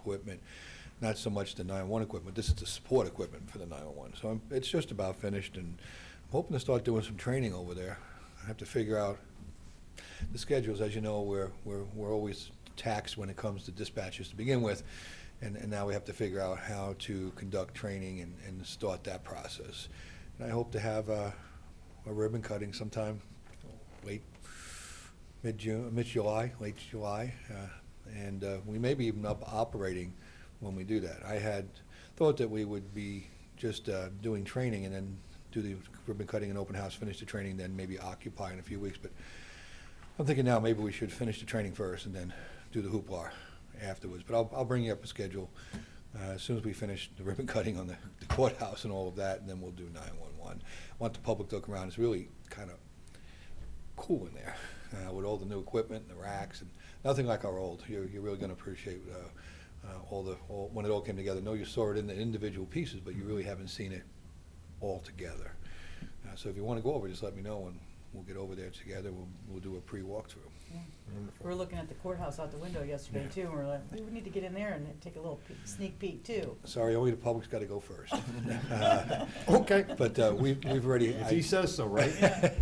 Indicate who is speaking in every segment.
Speaker 1: equipment, not so much the 911 equipment, this is the support equipment for the 911. So I'm- it's just about finished, and I'm hoping to start doing some training over there. I have to figure out the schedules, as you know, we're, we're, we're always taxed when it comes to dispatches to begin with, and, and now we have to figure out how to conduct training and, and start that process. And I hope to have a, a ribbon cutting sometime late, mid-June, mid-July, late July, uh, and uh, we may be even up operating when we do that. I had thought that we would be just uh, doing training and then do the ribbon cutting and open house, finish the training, then maybe occupy in a few weeks, but I'm thinking now maybe we should finish the training first and then do the hoopla afterwards. But I'll, I'll bring you up a schedule uh, as soon as we finish the ribbon cutting on the the courthouse and all of that, and then we'll do 911. Want the public to look around. It's really kind of cool in there uh, with all the new equipment and the racks and nothing like our old. You're, you're really going to appreciate uh, uh, all the, all, when it all came together. I know you saw it in the individual pieces, but you really haven't seen it all together. Uh, so if you want to go over, just let me know and we'll get over there together. We'll, we'll do a pre walkthrough.
Speaker 2: We were looking at the courthouse out the window yesterday
Speaker 1: Yeah.
Speaker 2: too, and we were like, we would need to get in there and take a little peek- sneak peek too.
Speaker 1: Sorry, only the public's got to go first.
Speaker 3: Okay.
Speaker 1: But uh, we, we've already.
Speaker 3: If he says so, right?
Speaker 1: I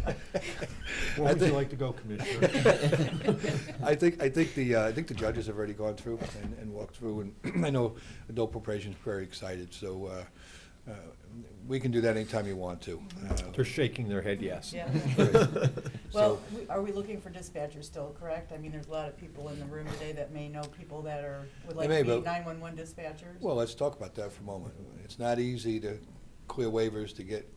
Speaker 3: Where would you
Speaker 1: think-
Speaker 3: like to go, Commissioner?
Speaker 1: I think, I think the, uh, I think the judges have already gone through and, and walked through, and I know adult appropriation's very excited, so, uh, uh, we can do that anytime you want to. uh,
Speaker 3: They're shaking their head yes.
Speaker 2: Yeah. Well,
Speaker 1: So,
Speaker 2: we- are we looking for dispatchers still, correct? I mean, there's a lot of people in the room today that may know people that are, would
Speaker 1: They
Speaker 2: like
Speaker 1: may,
Speaker 2: to be
Speaker 1: but-
Speaker 2: nine-one-one dispatchers.
Speaker 1: well, let's talk about that for a moment. It's not easy to clear waivers to get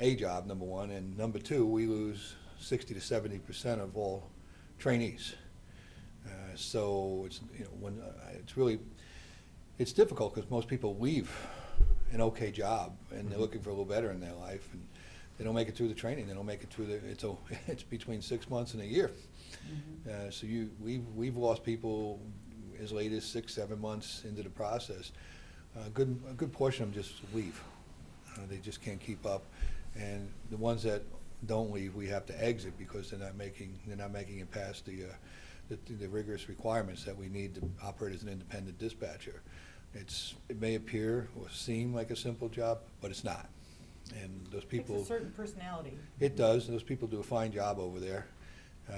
Speaker 1: a job, number one, and number two, we lose sixty to seventy percent of all trainees. Uh, So it's, you know, when, uh, it's really, it's difficult because most people leave an okay job and they're looking for a little better in their life and they don't make it through the training, they don't make it through the, it's, a- it's between six months and a year. Uh, So you, we've, we've lost people as late as six, seven months into the process. A good, a good portion of them just leave. Uh, They just can't keep up. And the ones that don't leave, we have to exit because they're not making, they're not making it past the, uh, the- the rigorous requirements that we need to operate as an independent dispatcher. It's, it may appear or seem like a simple job, but it's not. And those
Speaker 2: Takes
Speaker 1: people.
Speaker 2: a certain personality.
Speaker 1: It does, those people do a fine job over there. Uh,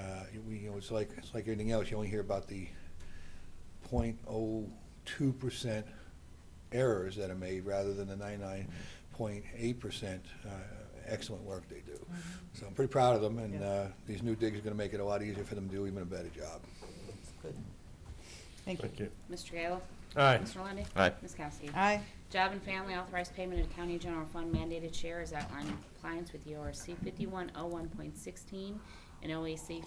Speaker 1: we- You know, it's like, it's like anything else, you only hear about the point oh two percent errors that are made rather than the ninety-nine point eight percent uh, excellent work they do. So I'm pretty proud of them, and
Speaker 2: Yeah.
Speaker 1: uh, these new digs are gonna make it a lot easier for them to do even a better job.
Speaker 2: Good. Thank you.
Speaker 3: Thank you.
Speaker 4: Mr. Kayla.
Speaker 3: Aye.
Speaker 4: Mr. Lundey.
Speaker 5: Aye.
Speaker 4: Ms. Kowski.
Speaker 2: Aye.
Speaker 4: Job and Family authorized payment of county general fund mandated share is outlined in compliance with E the ORC 5101.16 and E OAC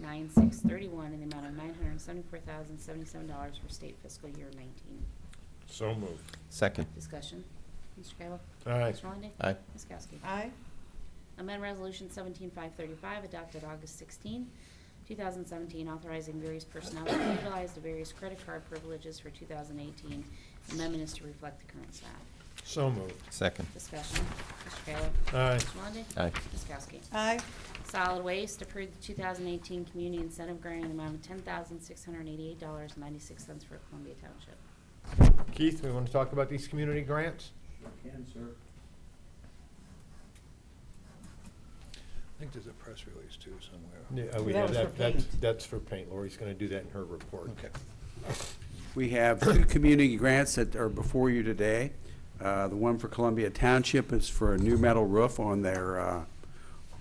Speaker 4: 5101.9631 in the amount of $974,077 for state fiscal year 19.
Speaker 3: So moved.
Speaker 5: Second.
Speaker 4: Discussion. Mr. Kayla.
Speaker 3: Aye.
Speaker 4: Mr. Lundey.
Speaker 5: Aye.
Speaker 4: Ms. Kowski.
Speaker 2: Aye.
Speaker 4: Amend Resolution 17535 adopted August 16, 2017, authorizing various personnel to utilize the various credit card privileges for 2018. Amendment is to reflect the current staff.
Speaker 3: So moved.
Speaker 5: Second.
Speaker 4: Discussion. Mr. Kayla.
Speaker 3: Aye.
Speaker 4: Mr. Lundey.
Speaker 5: Aye.
Speaker 4: Ms. Kowski.
Speaker 2: Aye.
Speaker 4: Solid Waste approved the 2018 Community Incentive Grant in the amount of $10,688.96 for Columbia Township.
Speaker 3: Keith, we want to talk about these community grants?
Speaker 6: Can, sir.
Speaker 1: I think there's a press release too somewhere.
Speaker 3: oh,
Speaker 2: That was for
Speaker 3: that's-
Speaker 2: paint.
Speaker 3: That's for paint. Lori's going to do that in her report.
Speaker 1: Okay.
Speaker 6: We have two community grants that are before you today. Uh, The one for Columbia Township is for a new metal roof on their, uh,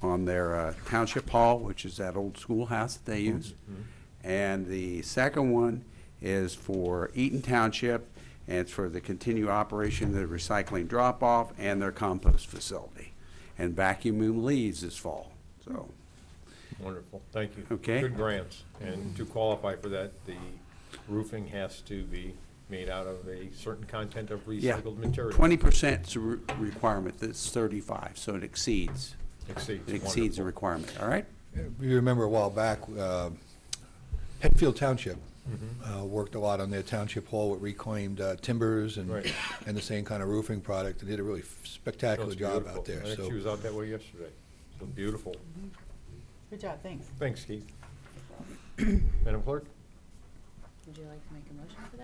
Speaker 6: on their uh, township hall, which is that old schoolhouse that they use.
Speaker 3: Mm-hmm.
Speaker 6: And the second one is for Eaton Township, and it's for the continued operation of the recycling drop-off and their compost facility, and vacuuming leaves this fall, so.
Speaker 3: Wonderful. Thank you.
Speaker 6: Okay.
Speaker 3: Good grants. And to qualify for that, the roofing has to be made out of a certain content of
Speaker 6: Yeah,
Speaker 3: recycled material.
Speaker 6: Twenty percent's a re- requirement, that's thirty-five, so it exceeds,
Speaker 3: Exceeds.
Speaker 6: it exceeds the
Speaker 3: Wonderful.
Speaker 6: requirement, all right?
Speaker 1: You remember a while back, uh, Hetfield Township
Speaker 3: Mm-hmm.
Speaker 1: uh, worked a lot on their township hall with reclaimed uh, timbers and,
Speaker 3: Right.
Speaker 1: and the same kind of roofing product, and did a really
Speaker 3: No,
Speaker 1: spectacular
Speaker 3: it's
Speaker 1: job
Speaker 3: beautiful.
Speaker 1: out there,
Speaker 3: I think
Speaker 1: so.
Speaker 3: She was out that way yesterday. So beautiful.
Speaker 2: Good job, thanks.
Speaker 3: Thanks, Keith. Madam Clerk?
Speaker 4: Would you like to make a motion for that?